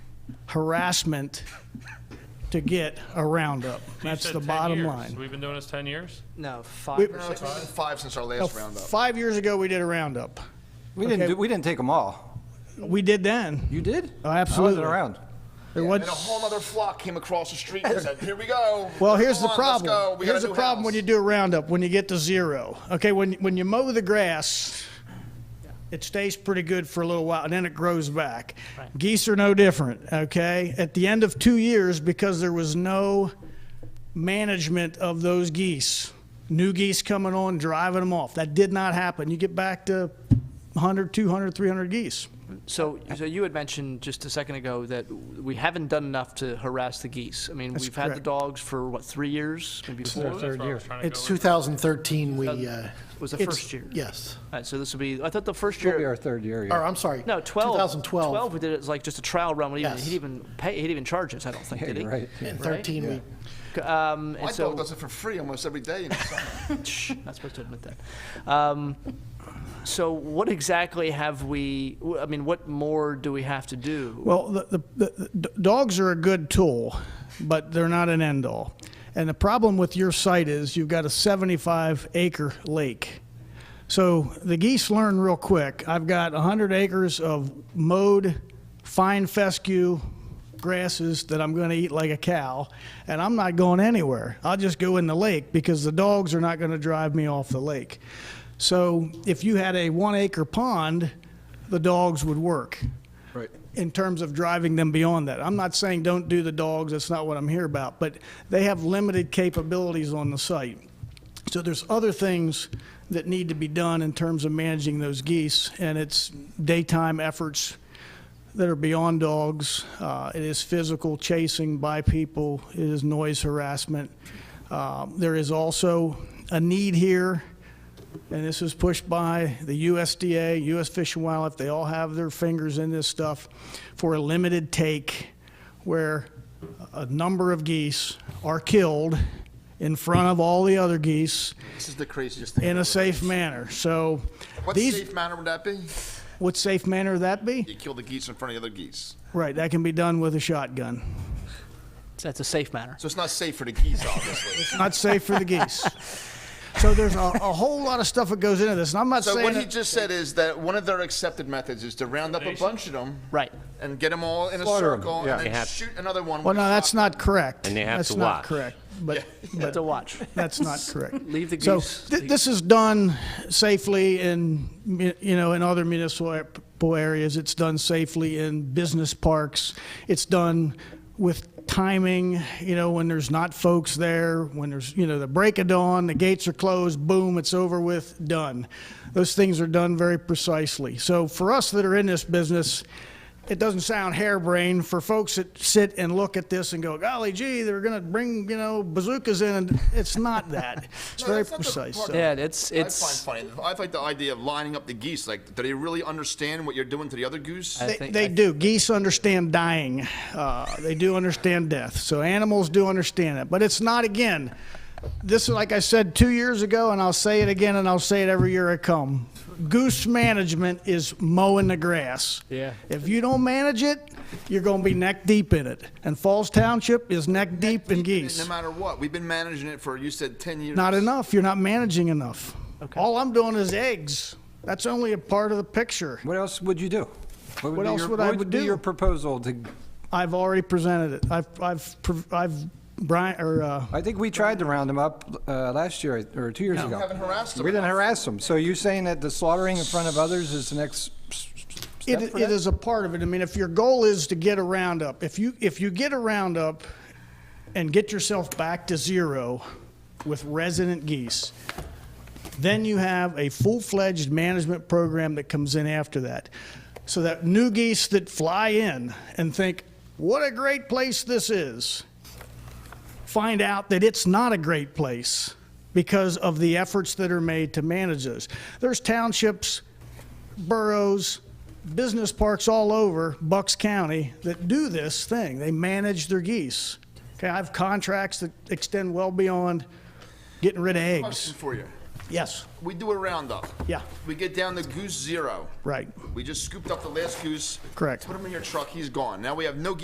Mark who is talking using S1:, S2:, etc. S1: harassment to get a roundup. That's
S2: said
S1: the
S2: 10
S1: bottom
S2: years.
S1: line.
S2: We've been doing this 10 years?
S3: No, five or
S1: No,
S3: six.
S4: It's been five since our
S1: Now,
S4: last roundup.
S1: Five years ago, we did a roundup.
S5: We didn't,
S1: Okay.
S5: do- we didn't take them all.
S1: We did then.
S5: You did?
S1: Oh, absolutely.
S5: I wasn't around.
S1: There
S4: And
S1: was-
S4: a whole other flock came across the street and said, here we go.
S1: Well, here's
S4: Come
S1: the
S4: on,
S1: problem.
S4: Let's go. We got
S1: here's
S4: a
S1: the
S4: new
S1: problem when you
S4: house."
S1: do a roundup, when you get to zero. Okay, when when you mow the grass, it stays pretty good for a little while and then it grows back. Geese are no different, okay? At the end of 2 years because there was no management of those geese. New geese coming on, driving them off. That did not happen. You get back to 100, 200, 300 geese.
S3: So, so you had mentioned just a second ago that we haven't done enough to harass the geese. I mean,
S1: That's
S3: we've had the
S1: correct.
S3: dogs for, what, three years, maybe
S2: Well,
S3: four?
S2: that's what I was trying to
S6: It's
S2: go with.
S6: 2013, we, uh,
S3: Was the
S1: It's-
S3: first year?
S6: yes.
S3: All right, so this will be, I thought the first
S5: It'll be our
S3: year,
S5: third year. yeah.
S6: Or, I'm sorry.
S3: no, 12. 12,
S6: 2012.
S3: we did it as like just a trial run, we didn't even,
S6: Yes.
S3: he didn't even pay, he didn't even charge us, I don't think,
S5: Yeah,
S3: did he?
S5: you're right.
S6: And 13, we,
S3: C- Um, and
S4: My
S3: so,
S4: dog does it for free almost every day. in the summer.
S3: Shh, not supposed to admit that. Um, So what exactly have we, w- I mean, what more do we have to do?
S1: Well, the, the, the, the dogs are a good tool, but they're not an end all. And the problem with your site is you've got a 75 acre lake. So the geese learn real quick. I've got 100 acres of mowed fine fescue grasses that I'm going to eat like a cow, and I'm not going anywhere. I'll just go in the lake because the dogs are not going to drive me off the lake. So if you had a one acre pond, the dogs would work in terms of driving them beyond that. I'm not saying don't do the dogs, that's not what I'm here about, but they have limited capabilities on the site. So there's other things that need to be done in terms of managing those geese, and it's daytime efforts that are beyond dogs. Uh, It is physical chasing by people, it is noise harassment. Uh, There is also a need here and this was pushed by the USDA, US Fish and Wildlife, they all have their fingers in this stuff, for a limited take where a number of geese are killed in front of all the other geese
S4: This is the craziest thing.
S1: in a
S4: ever.
S1: safe manner. So
S4: What
S1: these,
S4: safe manner would that be?
S1: what safe manner would that be?
S4: You kill the geese in front of the other geese.
S1: Right, that can be done with a shotgun.
S3: That's a safe manner.
S4: So it's not safe for the geese, obviously.
S1: Not safe for the geese. So there's a, a whole lot of stuff that goes into this, and I'm not
S4: So
S1: saying,
S4: what he
S1: that-
S4: just said is that one of their accepted methods is to round up a bunch of them.
S3: Right.
S4: And get them all in a
S5: Slaughter 'em,
S4: circle
S5: yeah.
S4: and
S7: They
S4: then
S7: have-
S4: shoot another one.
S1: well,
S4: with a
S1: no, that's
S4: shotgun.
S1: not correct.
S7: And they have to watch.
S1: That's not correct, but,
S3: Have
S1: but
S3: to watch.
S1: that's not correct.
S3: Leave the
S1: So
S3: goose.
S1: thi-
S3: the-
S1: this is done safely in, mu- you know, in other municipal areas. It's done safely in business parks. It's done with timing, you know, when there's not folks there, when there's, you know, the break of dawn, the gates are closed, boom, it's over with, done. Those things are done very precisely. So for us that are in this business, it doesn't sound harebrained for folks that sit and look at this and go, golly gee, they're going to bring, you know, bazookas in. And it's not that. It's
S4: No,
S1: very
S4: that's not the
S1: precise.
S4: part
S1: so.
S3: Yeah, it's,
S4: I
S3: it's,
S4: find funny. I like the idea of lining up the geese. Like, do they really understand what you're doing to the other goose?
S3: I
S1: They,
S3: think-
S1: they
S3: I-
S1: do. Geese understand dying. Uh, they do understand death. So animals do understand it. But it's not, again, this is like I said two years ago, and I'll say it again, and I'll say it every year I come. Goose management is mowing the grass.
S3: Yeah.
S1: If you don't manage it, you're going to be neck deep in it. And Falls Township is neck deep in
S4: No
S1: geese.
S4: matter what, we've been managing it for you said ten years.
S1: Not enough. You're not managing enough. All I'm doing is eggs. That's only a part of the picture.
S5: What else would you do?
S1: What
S5: be
S1: else
S5: your-
S1: would I
S5: What
S1: would
S5: would be
S1: do?
S5: your proposal to,
S1: I've already presented it. I've, I've, prov- I've, Brian, or, uh,
S5: I think we tried to round them up uh, last year or two years ago. We
S4: haven't harassed 'em
S5: We didn't
S4: enough.
S5: harass them. So you're saying that the slaughtering in front of others is the next s- s-
S1: It,
S5: step for
S1: it
S5: that?
S1: is a part of it. I mean, if your goal is to get a roundup, if you, if you get a roundup and get yourself back to zero with resident geese, then you have a full-fledged management program that comes in after that. So that new geese that fly in and think, what a great place this is, find out that it's not a great place because of the efforts that are made to manage this. There's townships boroughs, business parks all over Bucks County that do this thing. They manage their geese. Okay, I have contracts that extend well beyond getting rid of eggs.
S4: Question for you.
S1: Yes,
S4: We do a roundup.
S1: Yeah.
S4: We get down to goose zero.
S1: right.
S4: We just scooped up the last goose.
S1: Correct.
S4: Put him in your truck. He's gone. Now we have no geese